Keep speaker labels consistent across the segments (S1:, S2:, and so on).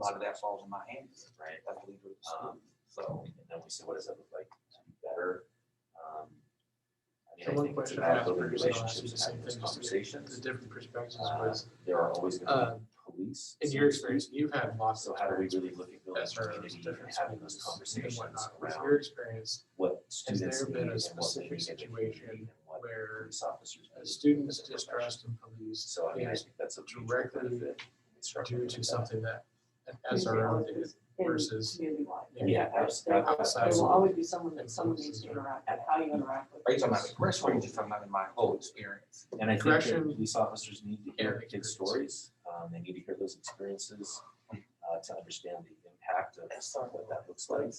S1: lot of that falls in my hands,
S2: right?
S1: I believe it's-
S2: Um, so, and then we said, what does that look like to be better? Um, I mean,
S3: The
S2: I
S3: one
S2: think it's
S3: question I
S2: about
S3: asked
S2: building
S3: Bruce and I'll ask you
S2: relationships
S3: the
S2: and
S3: same
S2: having those
S3: thing, just to-
S2: conversations.
S3: The different perspectives
S2: Uh,
S3: was,
S2: There are always gonna
S3: uh,
S2: be police.
S3: in your experience, you've had lots
S2: So
S3: of.
S2: how do we really look at building
S3: That's our
S2: community and
S3: difference.
S2: having those
S3: and
S2: conversations
S3: whatnot. With
S2: around
S3: your experience,
S2: what
S3: has
S2: students
S3: there
S2: need
S3: been
S2: and
S3: a
S2: what they
S3: specific
S2: need and what they need
S3: situation
S2: and what
S3: where
S2: police officers.
S3: a
S2: need
S3: student's
S2: as a profession?
S3: distrust in police
S2: So I mean, I
S3: is
S2: think that's a major
S3: directly
S2: benefit.
S3: due to something that an SRO did versus.
S2: Yeah, yeah, abs- ab-
S3: Outside.
S4: There will always be someone that someone needs to interact with, how you interact with.
S1: Are you talking about the correction or are you just talking about in my whole experience?
S2: And I think that
S3: Correction.
S2: police officers need to
S3: Yeah,
S2: hear
S3: they
S2: kids'
S3: hear it.
S2: stories. Um, they need to hear those experiences, uh, to understand the impact of what that looks like.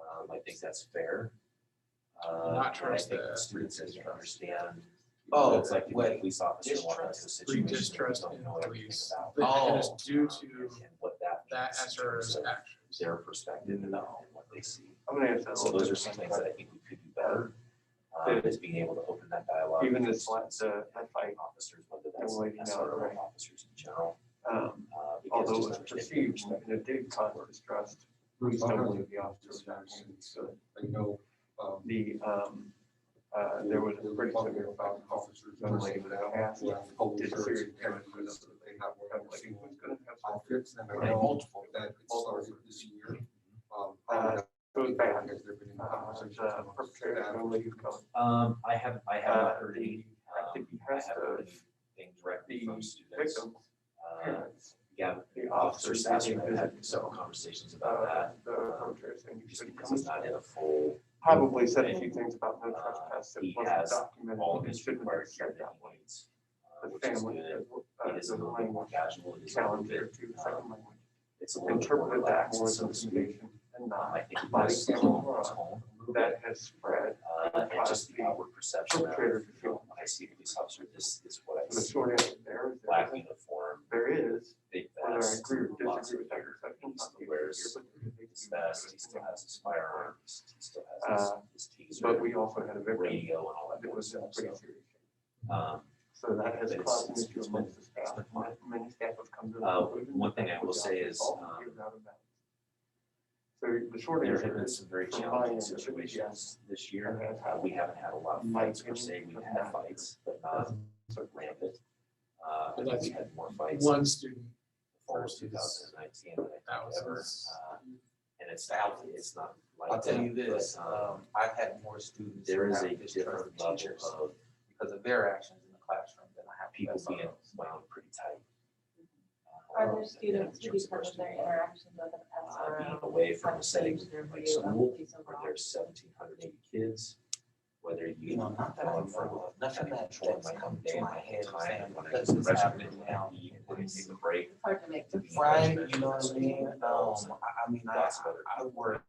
S2: Um, I think that's fair. Uh,
S3: Not
S2: and I
S3: trust
S2: think
S3: the-
S2: Students need to understand.
S1: Oh,
S2: It's like if a
S1: wait.
S2: police officer walked into a
S1: Distrust.
S2: situation. they
S3: Distrust
S2: don't
S3: in
S2: know everything
S3: police.
S2: about,
S3: But and it's
S1: Oh.
S3: due
S2: um,
S3: to
S2: And what that.
S3: that
S2: means in terms
S3: SRO's
S2: of
S3: actions.
S2: Their perspective and
S1: Mm-hmm.
S2: what they see.
S5: I'm gonna ask that a
S2: So
S5: little
S2: those are
S5: different.
S2: some things that I think we could do better, um, is being able to open that dialogue.
S5: Even
S2: with
S5: this last, uh, that fight,
S2: Officers, whether that's
S5: Well, you know,
S2: SRO
S5: right.
S2: officers in general.
S5: um,
S2: uh, because
S5: although it
S2: just
S5: was
S2: understanding
S5: perceived,
S2: perspective.
S5: you know, did cause distrust
S2: Uh-huh.
S5: reasonably of the officers. actions. So
S6: I know, um,
S5: The, um, uh, there was a pretty severe
S6: about officers.
S5: gun lane that passed.
S6: who have whole
S5: Did
S6: shirts
S5: serious
S6: and
S5: damage
S6: guns that they have
S5: Kind of
S6: whatever
S5: like,
S6: they
S5: it was
S6: want.
S5: gonna have
S6: I
S5: some-
S6: fixed them, I
S5: Right.
S6: know multiple that it started this year. Um,
S5: Uh,
S6: I
S5: Goes
S6: don't
S5: back,
S6: know if there have been any
S5: uh,
S6: conversations
S5: the
S6: amongst
S5: perpetrator, I
S6: that.
S5: don't know you come.
S2: Um, I have, I have not
S5: Uh,
S2: heard
S5: the-
S2: any,
S5: I
S2: um,
S5: think you
S2: I
S5: have
S2: haven't heard
S5: to-
S2: anything directly from
S5: the
S2: students.
S5: Victim,
S2: Uh,
S5: parents,
S2: yeah,
S5: the
S2: Officer
S5: officers,
S2: Sasser and I
S5: the-
S2: have had several conversations about
S5: uh,
S2: that,
S5: the perpetrator, and you
S2: just
S5: should
S2: because it's not in a full,
S5: probably said a few things about no
S2: Uh,
S5: trespass that
S2: he
S5: wasn't
S2: has
S5: documented.
S2: all of
S5: and
S2: his
S5: shouldn't have
S2: required
S5: shared
S2: care
S5: that
S2: that he
S5: way.
S2: needs. uh,
S5: The
S2: which is
S5: family,
S2: good.
S5: uh,
S2: It is a
S5: the
S2: little bit more
S5: language
S2: casual, it is a little
S5: challenge there
S2: bit,
S5: too,
S2: uh,
S5: second language.
S2: it's a little bit more
S5: Interpreted that
S2: relaxed,
S5: more
S2: so
S5: as
S2: to speak.
S5: intimidation and
S2: Um,
S5: not
S2: I think
S5: Body
S2: that's
S5: camera
S2: tone,
S5: law.
S2: tone a little bit,
S5: that has spread.
S2: uh, and just the
S5: uh,
S2: outward perception of,
S5: perpetrator to feel.
S2: when I see a police officer, this is what I
S5: The
S2: see,
S5: short answer there is
S2: black
S5: there is,
S2: uniform,
S5: there is,
S2: big
S5: whether I
S2: vest,
S5: agree or
S2: lots
S5: disagree
S2: of
S5: with that perception.
S2: He
S5: not
S2: still
S5: the
S2: wears
S5: idea, but it
S2: his
S5: is-
S2: vest, he still has his firearms, he still has
S5: Uh,
S2: his, his
S5: But
S2: taser,
S5: we also had a victim
S2: radio and all that
S5: that
S2: kind of
S5: was in
S2: stuff,
S5: pretty
S2: so,
S5: serious.
S2: um,
S5: So that has
S2: But it's-
S5: caused an
S2: it's-
S5: issue
S2: it's
S5: amongst the staff.
S2: been fine.
S5: Many staff have come to. the
S2: Uh,
S5: conclusion
S2: one
S5: that
S2: thing
S5: that
S2: I will
S5: was
S2: say
S5: not
S2: is,
S5: involved,
S2: um,
S5: it was out of bounds. So the short
S2: there have
S5: answer
S2: been
S5: is,
S2: some very
S5: from my
S2: challenging
S5: end, it would be
S2: situations this year.
S5: that's
S2: Uh,
S5: how
S2: we haven't had a lot of
S5: My
S2: fights per se,
S5: opinion
S2: we've
S5: of
S2: had
S5: that.
S2: fights, but not
S5: so
S2: rampant. Uh,
S3: But that's
S2: we had more fights in
S3: One student,
S2: fall of
S3: versus
S2: two thousand and nineteen than I
S3: that
S2: think ever,
S3: was,
S2: uh, and it's,
S1: Thousands.
S2: it's not like that.
S1: I'll tell you this,
S2: but, um,
S1: um, I've had more students.
S2: There
S1: who
S2: is
S1: have
S2: a
S1: distrust
S2: different
S1: of
S2: level
S1: teachers
S2: of
S1: Because of their actions in the classroom than I have.
S2: people
S1: with
S2: being
S1: SROs.
S2: wound pretty tight.
S4: Are
S2: Um,
S4: there uh, students
S2: in
S4: who
S2: terms of
S4: because of their
S2: personal
S4: interaction with an
S2: uh, being
S4: SRO?
S2: away from a
S4: have
S2: setting
S4: changed their
S2: like
S4: view of
S2: school,
S4: police and
S2: where
S4: law?
S2: there's seventeen hundred eighty kids, whether
S1: You
S2: you
S1: know, not that I'm
S2: going from
S1: from, nothing that
S2: control
S1: that's
S2: might come
S1: come to
S2: down
S1: my
S2: at
S1: head
S2: a time
S1: saying,
S2: when I
S1: this is
S2: freshman
S1: happening
S2: now,
S1: now.
S2: E, you can take a break.
S4: It's hard to make.
S2: to be
S1: Right,
S2: judgmental
S1: you know what I
S2: and
S1: mean? Um,
S2: schools and
S1: I, I mean, I,
S2: lots of other
S1: I I worked,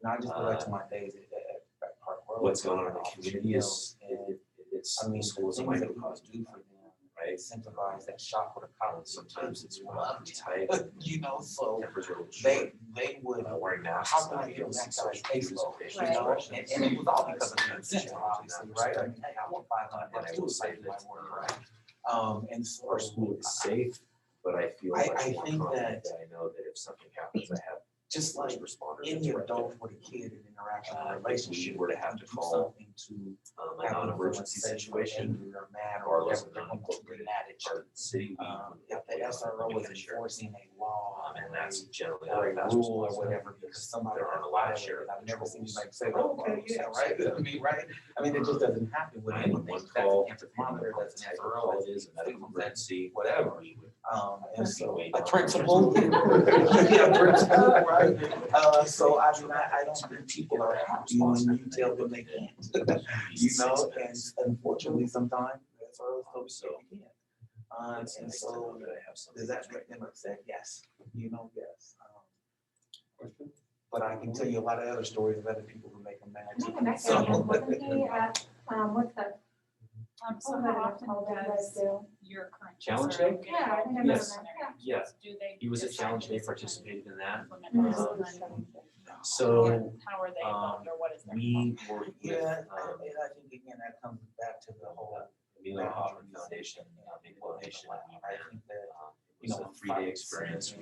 S1: and I just go back to my days at, at at Park Road.
S2: Uh, What's going on in the
S1: Officer
S2: community is,
S1: Mills, and-
S2: it- it- it's,
S1: I mean,
S2: school is a
S1: things that
S2: minor
S1: we
S2: cause,
S1: must do for them,
S2: right?
S1: incentivize that shock with a collar.
S2: Sometimes it's wild, tight,
S1: You know, so
S2: tempers are a little
S1: they,
S2: short,
S1: they would,
S2: uh, wearing masks.
S1: how can
S2: not
S1: I get
S2: feeling
S1: back to
S2: social
S1: our space
S2: distance,
S1: low?
S2: facial
S1: You know, and,
S2: expressions.
S1: and it was all because of
S2: That's
S1: the
S2: a
S1: incentive,
S2: challenge in
S1: obviously,
S2: that
S1: right? I
S2: respect.
S1: mean, hey, I want five hundred,
S2: And
S1: but
S2: I
S1: I still
S2: will say
S1: saved my
S2: that,
S1: work,
S2: uh,
S1: right? Um, and so.
S2: our school is safe, but I feel
S1: I-
S2: much
S1: I
S2: more
S1: think that-
S2: confident that I know that if something happens, I have
S1: Just like
S2: first responders.
S1: any
S2: that's right
S1: adult with a kid in interaction,
S2: Uh,
S1: or
S2: if we
S1: relationship.
S2: were to
S1: they
S2: have
S1: can
S2: to
S1: do
S2: call
S1: something To
S2: there. Um, a non-emergency situation,
S1: Or mad or whatever,
S2: regardless of
S1: they're gonna get
S2: non-incorporated
S1: mad at you.
S2: our city. we-
S1: Um,
S2: we
S1: if the
S2: have
S1: SRO was
S2: to share.
S1: enforcing a law
S2: Um,
S1: and
S2: and
S1: that's
S2: that's generally not
S1: or
S2: a
S1: a
S2: fast
S1: rule
S2: response.
S1: or whatever, because somebody.
S2: There aren't a lot
S1: violated
S2: of
S1: it.
S2: sheriff
S1: I've never seen
S2: patrols.
S1: like say, "Oh, okay, yeah, right, I mean, right, I mean, it just doesn't happen with
S2: I
S1: anyone, that's
S2: had one
S1: an
S2: call,
S1: anthropometer,
S2: depending on what
S1: that's an
S2: type of
S1: SRO,
S2: call
S1: that's
S2: it is, a medical emergency,
S1: whatever.
S2: we would
S1: Um, and so,
S2: Anyway,
S1: a
S2: um,
S1: principal. Yeah, principal, right? Uh, so I mean, I, I don't think people are happy when you tell them they can't. You know, and unfortunately, sometimes that's what I was hoping they can't. Uh, and so, does that make them upset? Yes, you know, yes. Um,
S6: Question?
S1: But I can tell you a lot of other stories of other people who make them mad.
S7: Matter of fact,
S1: So-
S7: Wasn't he at, um, what's that?
S8: Um, so
S7: Oh,
S8: how
S7: that
S8: often
S7: does
S8: does your current.
S2: Challenge
S8: teacher
S2: day?
S8: get
S7: Yeah, I
S8: involved
S7: remember
S8: in
S2: Yes.
S8: their
S7: that,
S8: actions?
S2: yeah.
S8: Do they?
S2: He was at
S8: decide
S2: challenge,
S8: that
S2: they
S8: this is
S2: participated in that.
S8: implement
S7: Mhm.
S2: Um,
S8: Yeah,
S2: So
S8: How are they
S2: um,
S8: involved or what is their?
S2: we were with,
S1: Yeah, I
S2: um,
S1: mean, I think again, that comes back to the whole.
S2: Mila Hoffman Foundation, uh, Big Foundation.
S1: I think that
S2: It was a three-day experience